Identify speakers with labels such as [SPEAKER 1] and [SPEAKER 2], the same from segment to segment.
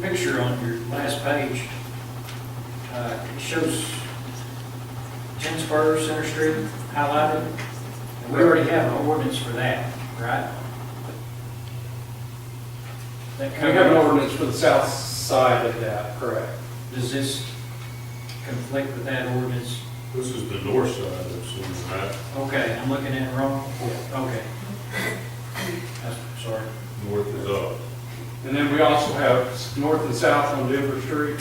[SPEAKER 1] picture on your last page, uh, it shows Tinsburg Center Street highlighted. And we already have an ordinance for that, right? That
[SPEAKER 2] We have an
[SPEAKER 1] covers,
[SPEAKER 2] ordinance for the south side of that, correct?
[SPEAKER 1] does this conflict with that ordinance?
[SPEAKER 3] This is the north side of Swimming, right?
[SPEAKER 1] Okay, I'm looking at it wrong? Okay. That's- Sorry.
[SPEAKER 3] North is up.
[SPEAKER 2] And then we also have s- north and south on Denver Street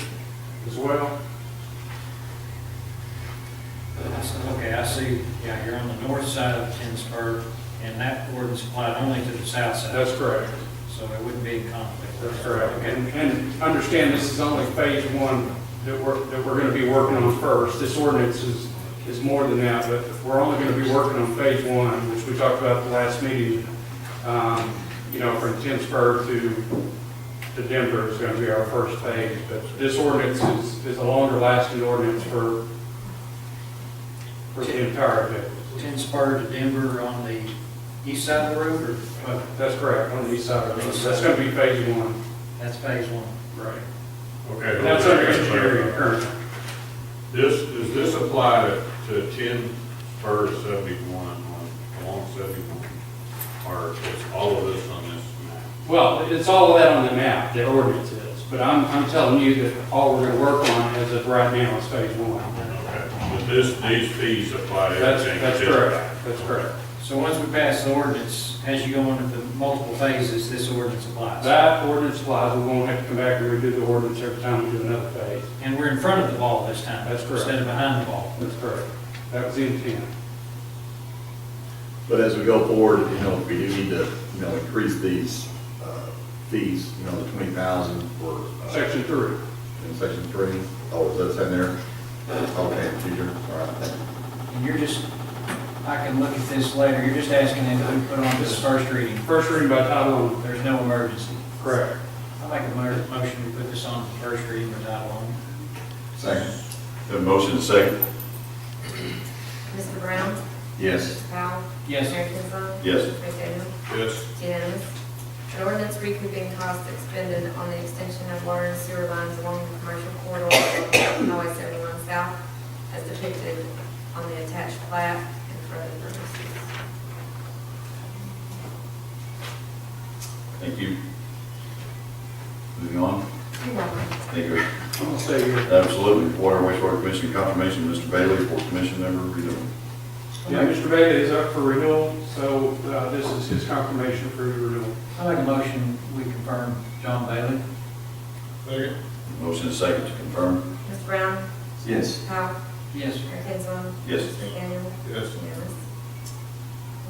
[SPEAKER 2] as well.
[SPEAKER 1] I said, Okay, I see, yeah, you're on the north side of Tinsburg, and that ordinance applied only to the south side,
[SPEAKER 2] That's correct.
[SPEAKER 1] so it wouldn't be in conflict.
[SPEAKER 2] That's correct.
[SPEAKER 1] Okay,
[SPEAKER 2] And, and understand this is only phase one that we're, that we're gonna be working on first. This ordinance is, is more than that, but we're only gonna be working on phase one, which we talked about at the last meeting. Um, you know, from Tinsburg to, to Denver is gonna be our first phase. But this ordinance is, is a longer lasting ordinance for, for the entire bit.
[SPEAKER 1] Tinsburg to Denver on the east side of the road, or, uh,
[SPEAKER 2] That's correct, on the east side of it. That's gonna be phase one.
[SPEAKER 1] that's phase one.
[SPEAKER 2] Right.
[SPEAKER 3] Okay.
[SPEAKER 2] And that's under
[SPEAKER 3] okay,
[SPEAKER 2] engineering currently.
[SPEAKER 3] This, does this apply to, to ten per seventy-one on, along seventy-one? Or is all of this on this map?
[SPEAKER 2] Well, it's all of that on the map, the ordinance is, but I'm, I'm telling you that all we're gonna work on as of right now is phase one.
[SPEAKER 3] Okay, but this, these fees apply to
[SPEAKER 2] That's,
[SPEAKER 3] everything?
[SPEAKER 2] that's correct, that's correct.
[SPEAKER 1] So once we pass the ordinance, as you go into the multiple phases, this ordinance applies.
[SPEAKER 2] That ordinance applies, we won't have to come back and redo the ordinance every time we do another phase.
[SPEAKER 1] And we're in front of the ball this time.
[SPEAKER 2] That's correct.
[SPEAKER 1] Instead of behind the ball.
[SPEAKER 2] That's correct. That was the intent.
[SPEAKER 4] But as we go forward, you know, we do need to, you know, increase these uh, fees, you know, the twenty thousand for. uh,
[SPEAKER 2] Section three.
[SPEAKER 4] In section three. Oh, is that in there? Okay, future, all right, thank you.
[SPEAKER 1] And you're just, I can look at this later, you're just asking if we put on this first reading,
[SPEAKER 2] First reading by title only.
[SPEAKER 1] there's no emergency.
[SPEAKER 2] Correct.
[SPEAKER 1] I make a mo- motion to put this on the first reading by title only.
[SPEAKER 4] Second. The motion is second.
[SPEAKER 5] Mr. Brown?
[SPEAKER 4] Yes.
[SPEAKER 5] Mr. Powell?
[SPEAKER 1] Yes.
[SPEAKER 5] Mayor Kinsler?
[SPEAKER 4] Yes.
[SPEAKER 5] Vice Chairman?
[SPEAKER 3] Yes,
[SPEAKER 5] Unanimous. An ordinance recouping costs expended on the extension of water and sewer lines along the commercial corridor of Highway 71 South as depicted on the attached plat and for other purposes.
[SPEAKER 4] Thank you. Moving on,
[SPEAKER 5] You're welcome.
[SPEAKER 4] thank you.
[SPEAKER 2] I'm gonna say here.
[SPEAKER 4] Absolutely. Water and wastewater commission confirmation, Mr. Bailey, for commission member, you know.
[SPEAKER 2] Yeah, Mr. Vega is up for renewal, so, uh, this is his confirmation for renewal.
[SPEAKER 1] I make a motion, we confirm John Bailey.
[SPEAKER 3] second?
[SPEAKER 4] Motion is second to confirm.
[SPEAKER 5] Mr. Brown?
[SPEAKER 4] Yes.
[SPEAKER 5] Powell?
[SPEAKER 1] Yes.
[SPEAKER 5] Mayor Kinsler?
[SPEAKER 4] Yes.
[SPEAKER 5] McDaniel?
[SPEAKER 3] Yes.
[SPEAKER 5] Unanimous.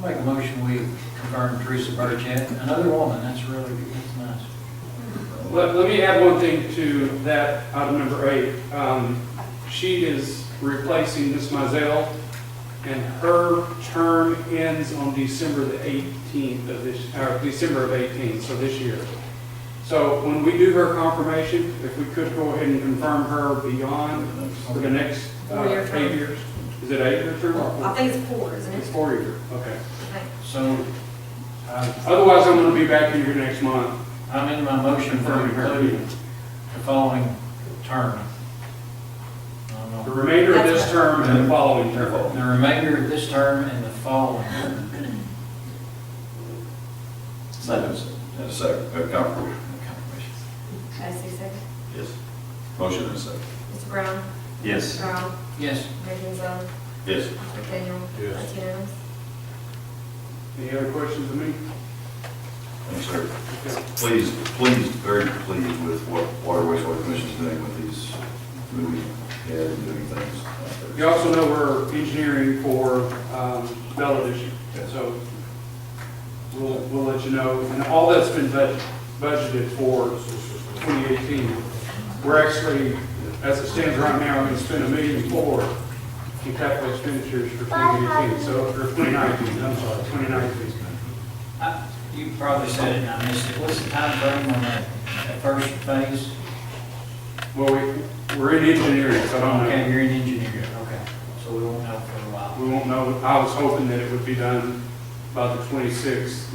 [SPEAKER 1] I make a motion, we confirm Teresa Burchett, another woman, that's really, that's nice.
[SPEAKER 2] Let, let me add one thing to that, item number eight. Um, She is replacing Ms. Mizell, and her term ends on December the 18th of this, or December of 18, so this year. So when we do her confirmation, if we could go ahead and confirm her beyond for the next uh,
[SPEAKER 5] Four-year term. Uh,
[SPEAKER 2] eight years. Is it eight year term or
[SPEAKER 5] I
[SPEAKER 2] four?
[SPEAKER 5] think it's four, isn't
[SPEAKER 2] It's
[SPEAKER 5] it?
[SPEAKER 2] four year, okay.
[SPEAKER 5] Okay.
[SPEAKER 1] So, I-
[SPEAKER 2] Otherwise, I'm going to be back in here next month.
[SPEAKER 1] I'm in my motion for including the following term. I don't
[SPEAKER 2] The
[SPEAKER 1] know.
[SPEAKER 2] remainder of this term and the following term.
[SPEAKER 1] The remainder of this term and the following. term.
[SPEAKER 4] Second. And a second, uh, confirmation. Confirmation.
[SPEAKER 5] Cassie, second.
[SPEAKER 4] Yes. Motion and a second.
[SPEAKER 5] Mr. Brown?
[SPEAKER 4] Yes.
[SPEAKER 5] Powell?
[SPEAKER 1] Yes,
[SPEAKER 5] Mayor Kinsler?
[SPEAKER 4] Yes.
[SPEAKER 5] McDaniel?
[SPEAKER 3] Yes.
[SPEAKER 5] That's unanimous.
[SPEAKER 2] Any other questions of me?
[SPEAKER 4] Thanks, sir.
[SPEAKER 2] Okay.
[SPEAKER 4] Pleased, pleased, very pleased with what Water Wastewater Commission's doing with these moving ahead and doing things. out
[SPEAKER 2] You
[SPEAKER 4] there.
[SPEAKER 2] also know we're engineering for um, Bella this year, so we'll, we'll let you know. And all that's been budget- budgeted for 2018. We're actually, as it stands right now, going to spend a million four in capital expenditures for 2018, so, or 2019, I'm sorry, 2019.
[SPEAKER 1] I- you probably said it and I missed it, what's the time frame on that, that first phase?
[SPEAKER 2] Well, we, we're in engineering, so I don't know.
[SPEAKER 1] Okay, you're an engineer, okay, so we won't know for a while.
[SPEAKER 2] We won't know, I was hoping that it would be done by the 26th,